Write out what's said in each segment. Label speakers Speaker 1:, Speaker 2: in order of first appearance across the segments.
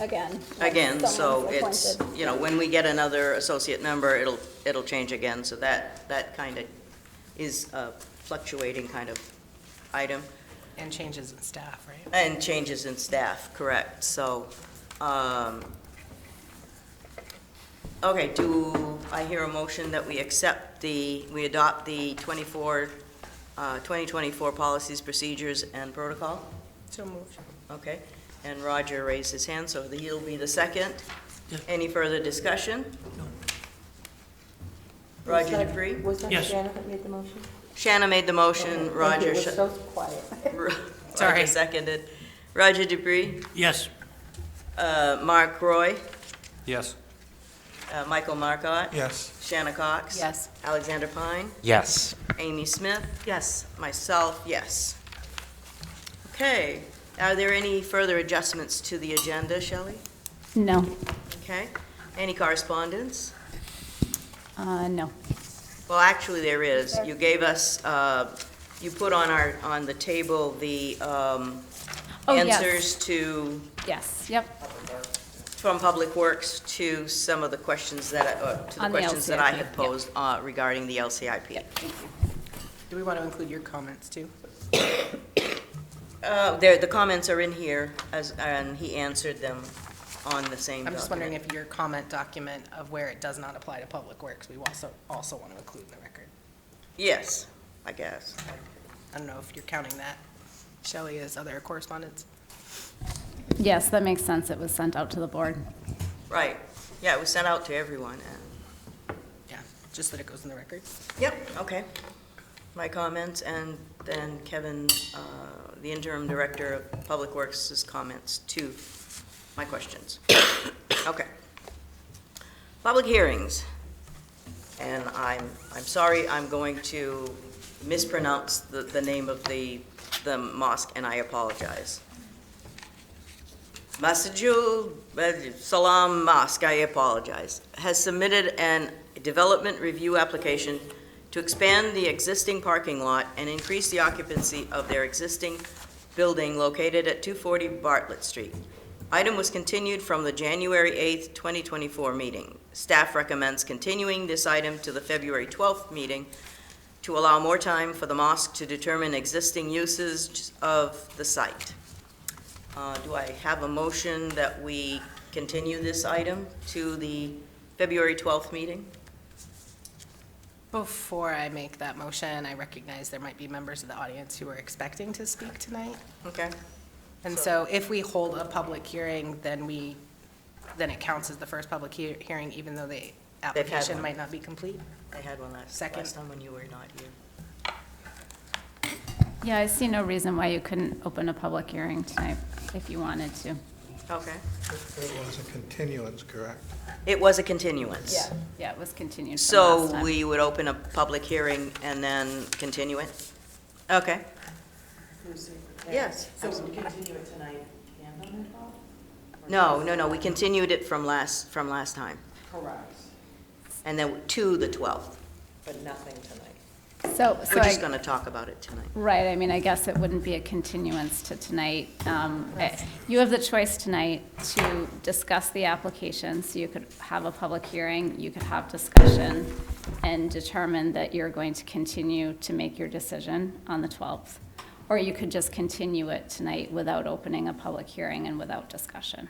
Speaker 1: again.
Speaker 2: Again, so
Speaker 1: Someone's
Speaker 2: it's,
Speaker 1: appointed.
Speaker 2: you know, when we get another associate member, it'll, it'll change again, so that, that kind of is a fluctuating kind of item,
Speaker 3: And changes in staff, right?
Speaker 2: and changes in staff, correct, so, um, okay, do I hear a motion that we accept the, we adopt the 24, uh, 2024 policies, procedures, and protocol?
Speaker 3: So moved.
Speaker 2: Okay, and Roger raised his hand, so he'll be the second. Any further discussion? Roger Dupree?
Speaker 4: Was that
Speaker 5: Yes.
Speaker 4: Shannon that made the motion?
Speaker 2: Shanna made the motion,
Speaker 4: Thank you,
Speaker 2: Roger,
Speaker 4: It was
Speaker 2: sh-
Speaker 4: so quiet.
Speaker 2: Ro- Roger
Speaker 3: Sorry.
Speaker 2: seconded. Roger Dupree,
Speaker 5: Yes.
Speaker 2: uh, Mark Roy,
Speaker 5: Yes.
Speaker 2: uh, Michael Marcotte,
Speaker 6: Yes.
Speaker 2: Shanna Cox.
Speaker 3: Yes.
Speaker 2: Alexander Pine,
Speaker 7: Yes.
Speaker 2: Amy Smith. Yes. Myself, yes. Okay, are there any further adjustments to the agenda, Shelley?
Speaker 1: No,
Speaker 2: Okay, any correspondence?
Speaker 1: uh, no.
Speaker 2: Well, actually, there is. You gave us, uh, you put on our, on the table the um,
Speaker 1: Oh, yes.
Speaker 2: answers to,
Speaker 1: Yes, yep,
Speaker 2: from Public Works to some of the questions that, I- uh, to the
Speaker 1: On the
Speaker 2: questions that I
Speaker 1: LCIP,
Speaker 2: had
Speaker 1: yeah.
Speaker 2: posed uh, regarding the LCIP.
Speaker 3: Do we want to include your comments too?
Speaker 2: Uh, There, the comments are in here, as, and he answered them on the same
Speaker 3: I'm just wondering
Speaker 2: document.
Speaker 3: if your comment document of where it does not apply to public works, we also, also want to include in the record.
Speaker 2: Yes, I guess.
Speaker 3: I don't know if you're counting that, Shelley, as other correspondence?
Speaker 1: yes, that makes sense, it was sent out to the board.
Speaker 2: Right. Yeah, it was sent out to everyone. and-
Speaker 3: Yeah, just that it goes in the record.
Speaker 2: Yep, okay. My comments, and then Kevin, uh, the interim director of Public Works' comments to my questions. Okay. Public hearings. And I'm, I'm sorry, I'm going to mispronounce the, the name of the, the mosque, and I apologize. Masjidul uh, Salam Mosque, I apologize, has submitted an development review application to expand the existing parking lot and increase the occupancy of their existing building located at 240 Bartlett Street. Item was continued from the January 8th, 2024 meeting. Staff recommends continuing this item to the February 12th meeting to allow more time for the mosque to determine existing uses of the site. Uh, Do I have a motion that we continue this item to the February 12th meeting?
Speaker 3: Before I make that motion, I recognize there might be members of the audience who are expecting to speak tonight.
Speaker 2: Okay,
Speaker 3: And so if we hold a public hearing, then we, then it counts as the first public hea- hearing, even though the application
Speaker 2: one.
Speaker 3: might not be complete?
Speaker 2: I had one last,
Speaker 3: Second.
Speaker 2: last time when you were not here.
Speaker 1: Yeah, I see no reason why you couldn't open a public hearing tonight if you wanted to.
Speaker 2: Okay.
Speaker 6: It was a continuance, correct?
Speaker 2: It was a continuance.
Speaker 1: Yeah, yeah, it was continued from last
Speaker 2: So
Speaker 1: time.
Speaker 2: we would open a public hearing and then continue it? Okay. Yes.
Speaker 4: So we continue it tonight,
Speaker 2: No, no, no, we continued it from last, from last time,
Speaker 4: Correct,
Speaker 2: and then to the 12th.
Speaker 4: but nothing tonight.
Speaker 1: So, so
Speaker 2: We're just
Speaker 1: I,
Speaker 2: going to talk about it tonight.
Speaker 1: right, I mean, I guess it wouldn't be a continuance to tonight. Um, I- You have the choice tonight to discuss the application, so you could have a public hearing, you could have discussion, and determine that you're going to continue to make your decision on the 12th. Or you could just continue it tonight without opening a public hearing and without discussion.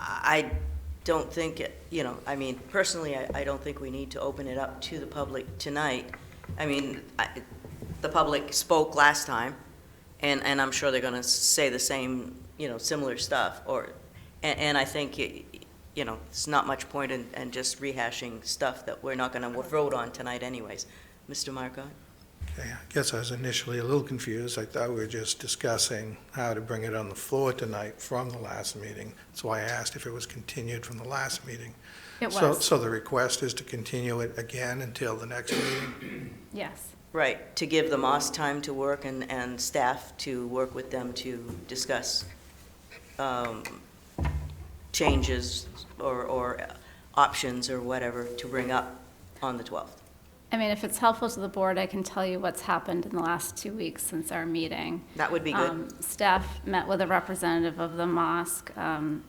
Speaker 2: I don't think, it you know, I mean, personally, I, I don't think we need to open it up to the public tonight. I mean, I, the public spoke last time, and, and I'm sure they're gonna say the same, you know, similar stuff, or, and, and I think, y- you know, it's not much point in, in just rehashing stuff that we're not gonna vote on tonight anyways. Mr. Marco?
Speaker 6: Okay, I guess I was initially a little confused. I thought we were just discussing how to bring it on the floor tonight from the last meeting. That's why I asked if it was continued from the last meeting.
Speaker 1: It
Speaker 6: So-
Speaker 1: was,
Speaker 6: So the request is to continue it again until the next meeting?
Speaker 1: yes.
Speaker 2: Right, to give the Moss time to work and, and staff to work with them to discuss um, changes or, or options or whatever to bring up on the 12th.
Speaker 1: I mean, if it's helpful to the board, I can tell you what's happened in the last two weeks since our meeting.
Speaker 2: That would be good.
Speaker 1: Um, Staff met with a representative of the mosque, um,